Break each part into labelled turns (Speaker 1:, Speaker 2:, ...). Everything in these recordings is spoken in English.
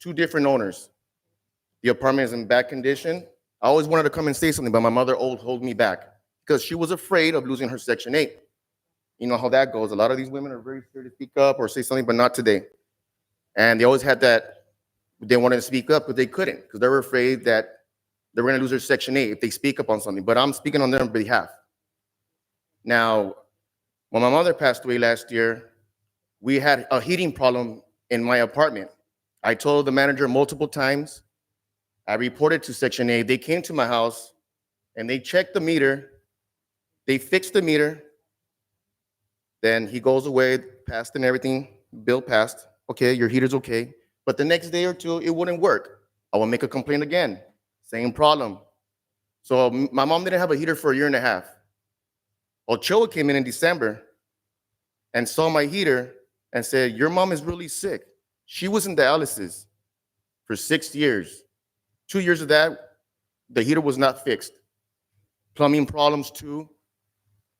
Speaker 1: two different owners. The apartment is in bad condition. I always wanted to come and say something, but my mother old hold me back because she was afraid of losing her Section 8. You know how that goes. A lot of these women are very scared to speak up or say something, but not today. And they always had that, they wanted to speak up, but they couldn't because they were afraid that they were going to lose their Section 8 if they speak up on something. But I'm speaking on their behalf. Now, when my mother passed away last year, we had a heating problem in my apartment. I told the manager multiple times. I reported to Section 8. They came to my house and they checked the meter. They fixed the meter. Then he goes away, passed and everything, bill passed. Okay, your heater's okay. But the next day or two, it wouldn't work. I will make a complaint again. Same problem. So m- my mom didn't have a heater for a year and a half. Ochoa came in in December and saw my heater and said, Your mom is really sick. She was in dialysis for six years. Two years of that, the heater was not fixed. Plumbing problems, too.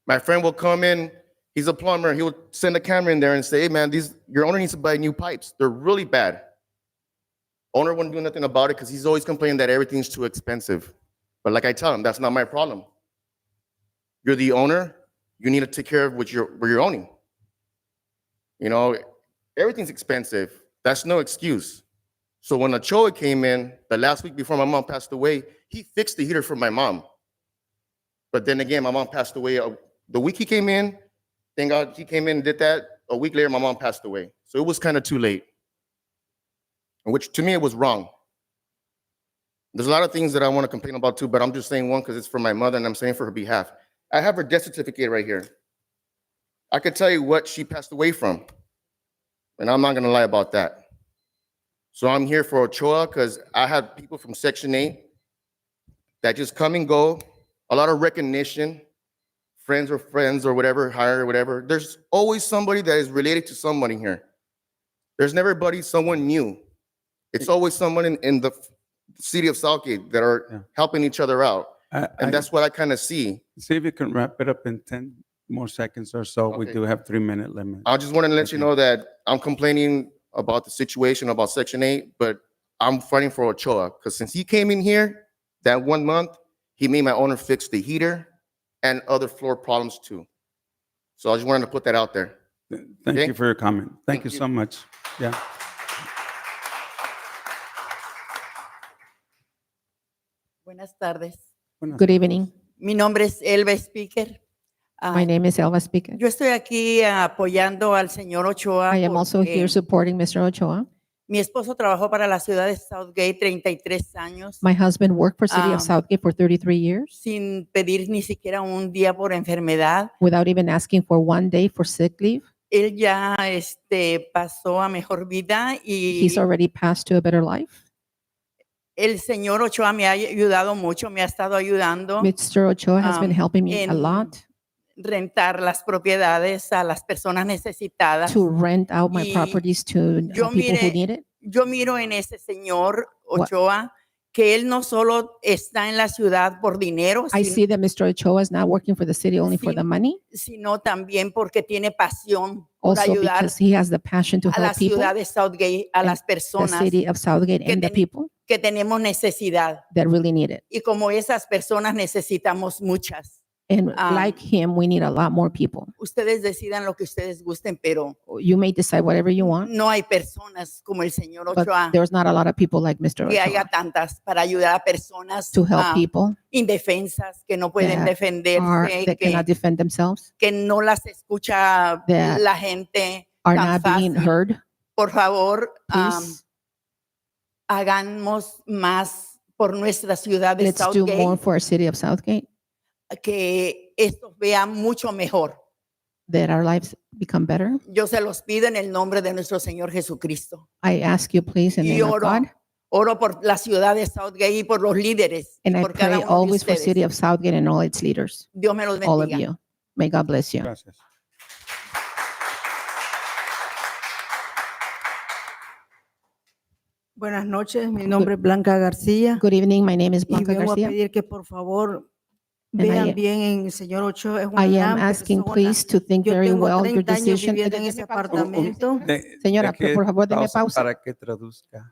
Speaker 1: My friend will come in, he's a plumber, he will send a camera in there and say, Hey, man, these, your owner needs to buy new pipes. They're really bad. Owner wouldn't do nothing about it because he's always complaining that everything's too expensive. But like I tell him, that's not my problem. You're the owner, you need to take care of what you're, what you're owning. You know, everything's expensive. That's no excuse. So when Ochoa came in the last week before my mom passed away, he fixed the heater for my mom. But then again, my mom passed away uh, the week he came in. Thank God he came in and did that. A week later, my mom passed away. So it was kind of too late, which to me it was wrong. There's a lot of things that I want to complain about too, but I'm just saying one because it's for my mother and I'm saying for her behalf. I have her death certificate right here. I could tell you what she passed away from. And I'm not gonna lie about that. So I'm here for Ochoa because I have people from Section 8 that just come and go, a lot of recognition, friends or friends or whatever, hire or whatever. There's always somebody that is related to someone in here. There's never buddy, someone new. It's always someone in, in the f- city of Southgate that
Speaker 2: Yeah.
Speaker 1: are helping each other out.
Speaker 2: I- I-
Speaker 1: And that's what I kind of see.
Speaker 2: See if you can wrap it up in 10 more seconds or so. We
Speaker 1: Okay. Uh,
Speaker 2: do have three-minute limit.
Speaker 1: I just wanted to let you
Speaker 2: Okay.
Speaker 1: know that I'm complaining about the situation about Section 8, but I'm fighting for Ochoa because since he came in here that one month, he made my owner fix the heater and other floor problems too. So I just wanted to put that out there.
Speaker 2: Th- Thank
Speaker 1: Okay.
Speaker 2: you for your comment. Thank
Speaker 1: Thank
Speaker 2: you
Speaker 1: you.
Speaker 2: so much. Yeah.
Speaker 3: Buenas tardes.
Speaker 2: Buenas-
Speaker 4: Good evening.
Speaker 3: Mi nombre es Elba Speaker. Ah,
Speaker 4: My name is Elva Speaker.
Speaker 3: yo estoy aquí ah, apoyando al señor Ochoa.
Speaker 4: I am also
Speaker 3: porque
Speaker 4: here supporting Mr. Ochoa.
Speaker 3: mi esposo trabajó para la ciudad de Southgate 33 años
Speaker 4: My husband worked for City
Speaker 3: Um,
Speaker 4: of Southgate for 33 years
Speaker 3: sin pedir ni siquiera un día por enfermedad.
Speaker 4: without even asking for one day for sick leave.
Speaker 3: Él ya este, pasó a mejor vida y
Speaker 4: He's already passed to a better life.
Speaker 3: el señor Ochoa me ha ayudado mucho, me ha estado ayudando a
Speaker 4: Mr. Ochoa has been
Speaker 3: Oh. um,
Speaker 4: helping me a
Speaker 3: en-
Speaker 4: lot
Speaker 3: rentar las propiedades a las personas necesitadas.
Speaker 4: to rent out my
Speaker 3: y
Speaker 4: properties to uh,
Speaker 3: yo
Speaker 4: people who
Speaker 3: mire-
Speaker 4: need it.
Speaker 3: yo miro en ese señor
Speaker 4: What-
Speaker 3: Ochoa que él no solo está en la ciudad por dinero,
Speaker 4: I
Speaker 3: sin-
Speaker 4: see that Mr. Ochoa is not working for the city only for
Speaker 3: Sin-
Speaker 4: the money,
Speaker 3: sino también porque tiene pasión por
Speaker 4: also
Speaker 3: ayudar
Speaker 4: because he has the passion to
Speaker 3: a la
Speaker 4: help people,
Speaker 3: ciudad de Southgate, a
Speaker 4: and
Speaker 3: las
Speaker 4: the
Speaker 3: personas
Speaker 4: city of Southgate
Speaker 3: que
Speaker 4: and the
Speaker 3: teni-
Speaker 4: people
Speaker 3: que tenemos necesidad.
Speaker 4: that really need it.
Speaker 3: Y como esas personas necesitamos muchas.
Speaker 4: And
Speaker 3: Um,
Speaker 4: like him, we need a lot more people.
Speaker 3: Ustedes decidan lo que ustedes gusten, pero
Speaker 4: You may decide whatever you want.
Speaker 3: no hay personas como el señor Ochoa
Speaker 4: but there's not a lot of people like Mr.
Speaker 3: que haya
Speaker 4: Ochoa
Speaker 3: tantas para ayudar a personas
Speaker 4: to help
Speaker 5: Um,
Speaker 3: ah,
Speaker 4: people
Speaker 3: indefensas que no pueden
Speaker 4: that
Speaker 3: defenderse,
Speaker 4: are,
Speaker 3: que,
Speaker 4: that cannot defend themselves,
Speaker 3: que no las escucha
Speaker 4: that
Speaker 3: la gente.
Speaker 4: are
Speaker 3: tan
Speaker 4: not being
Speaker 3: fácil.
Speaker 4: heard.
Speaker 3: Por favor,
Speaker 5: Um,
Speaker 3: am,
Speaker 4: Please,
Speaker 3: hagamos más por nuestra ciudad de
Speaker 4: let's do more
Speaker 3: Southgate,
Speaker 4: for our city of Southgate,
Speaker 3: que esto vea mucho mejor.
Speaker 4: that our lives become better.
Speaker 3: Yo se los pido en el nombre de nuestro Señor Jesucristo.
Speaker 4: I ask you, please, in the
Speaker 3: Y
Speaker 4: name of
Speaker 3: oro,
Speaker 4: God,
Speaker 3: oro por la ciudad de Southgate y por los líderes, y
Speaker 4: and I
Speaker 3: por cada
Speaker 4: pray
Speaker 3: uno de
Speaker 4: always for city
Speaker 3: ustedes.
Speaker 4: of Southgate and all its leaders,
Speaker 3: Dios me los
Speaker 4: all of
Speaker 3: bendiga.
Speaker 4: you. May God bless you.
Speaker 2: Gracias.
Speaker 5: Buenas noches, mi nombre es Blanca García
Speaker 4: Good evening. My name is
Speaker 5: y
Speaker 4: Blanca
Speaker 5: vengo a
Speaker 4: Garcia.
Speaker 5: pedir que por favor
Speaker 4: And I-
Speaker 5: vean bien en el señor Ochoa, es una
Speaker 4: I am
Speaker 5: gran
Speaker 4: asking,
Speaker 5: persona.
Speaker 4: please, to think
Speaker 5: Yo
Speaker 4: very
Speaker 5: tengo
Speaker 4: well your
Speaker 5: 30 años
Speaker 4: decision.
Speaker 5: viviendo en ese
Speaker 2: pausa.
Speaker 5: apartamento.
Speaker 2: De-
Speaker 4: Señora,
Speaker 2: deje
Speaker 4: por favor, deme pausa.
Speaker 2: Para que traduzca.